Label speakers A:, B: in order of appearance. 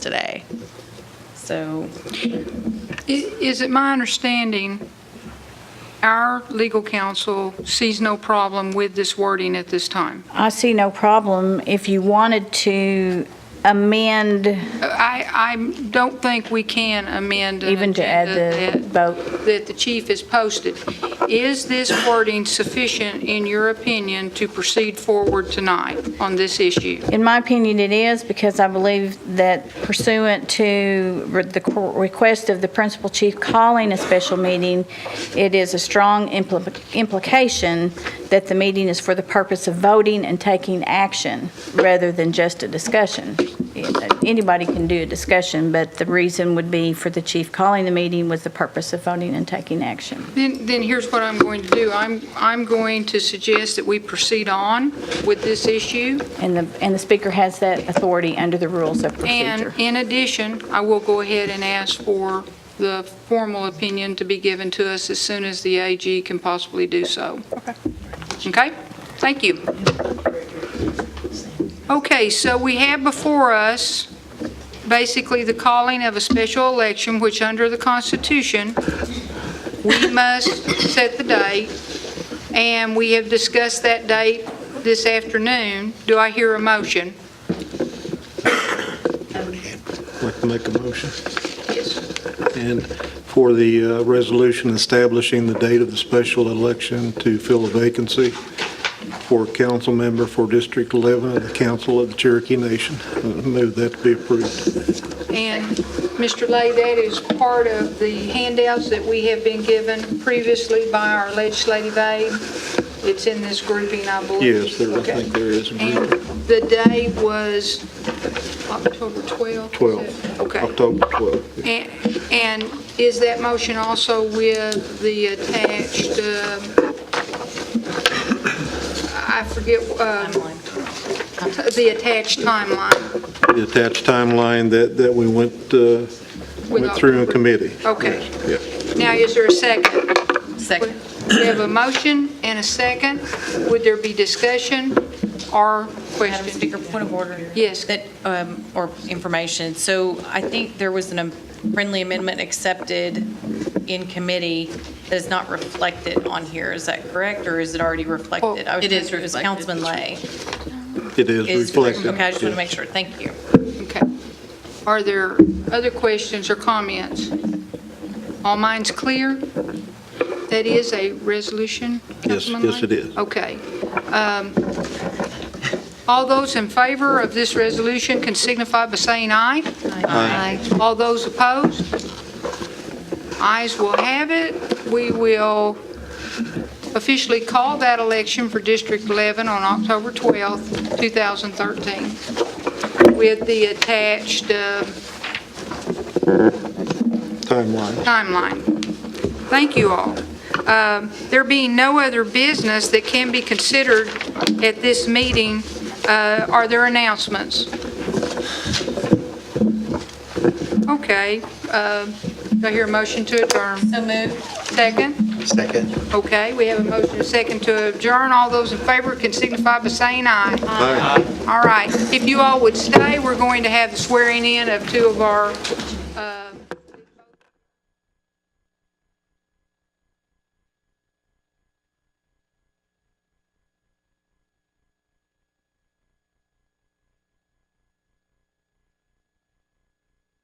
A: today. So,
B: I- Is it my understanding, our legal counsel sees no problem with this wording at this time?
C: I see no problem if you wanted to amend,
B: I, I don't think we can amend. an
C: even to add
B: agenda
C: the
B: that-
C: vote.
B: That the chief has posted. Is this wording sufficient, in your opinion, to proceed forward tonight on this issue?
C: In my opinion, it is, because I believe that pursuant to re- the cor- request of the principal chief calling a special meeting, it is a strong impl- implication that the meeting is for the purpose of voting and taking action, rather than just a discussion. Anybody can do a discussion, but the reason would be for the chief calling the meeting was the purpose of voting and taking action.
B: Then, then here's what I'm going to do. I'm, I'm going to suggest that we proceed on with this issue.
C: And the, and the speaker has that authority under the rules of
B: And
C: procedure.
B: in addition, I will go ahead and ask for the formal opinion to be given to us as soon as the AG can possibly do so. Okay. Okay? Thank you. Okay, so we have before us basically the calling of a special election, which under the Constitution, we must set the date, and we have discussed that date this afternoon. Do I hear a motion?
D: like to make a motion.
B: Yes.
D: And for the uh, resolution establishing the date of the special election to fill a vacancy for a council member for District 11 of the Council of the Cherokee Nation, Uh, move that to be approved.
B: And Mr. Lay, that is part of the handouts that we have been given previously by our legislative aid. It's in this grouping, I believe.
D: Yes, there, I
B: Okay.
D: think there is a
B: And
D: group,
B: the day was October 12th?
D: 12,
B: Okay.
D: October 12.
B: And- And is that motion also with the attached, um, I forget, um, the attached timeline?
D: The attached timeline that, that we went, uh, went through in committee.
B: Okay.
D: Yes,
B: Now, is there a second?
A: second.
B: We have a motion and a second. Would there be discussion or
A: Madam
B: question?
A: Speaker, point of order.
B: Yes.
A: That, um, or information. So I think there was a friendly amendment accepted in committee that is not reflected on here. Is that correct, or is it already reflected? I was
E: Oh, It is
A: trying to-
E: reflected.
A: Councilman Lay.
D: yeah. It is
A: is-
D: reflected.
A: Okay, I just want
D: yes.
A: to make sure. Thank you.
B: Okay. Are there other questions or comments? All minds clear? That is a resolution,
D: Yes,
B: Councilman
D: yes,
B: Lay?
D: it is.
B: Okay. Um, All those in favor of this resolution can signify by saying aye. Aye. All those opposed? Ayes will have it. We will officially call that election for District 11 on October 12th, 2013, with the attached uh,
D: Timeline.
B: timeline. Thank you all. Um, There being no other business that can be considered at this meeting, uh, are there announcements? Okay. uh, Do I hear a motion to adjourn?
A: So moved.
B: Second?
F: Second.
B: Okay, we have a motion and a second to adjourn. All those in favor can signify by saying aye. Aye. All right. If you all would stay, we're going to have the swearing in of two of our uh,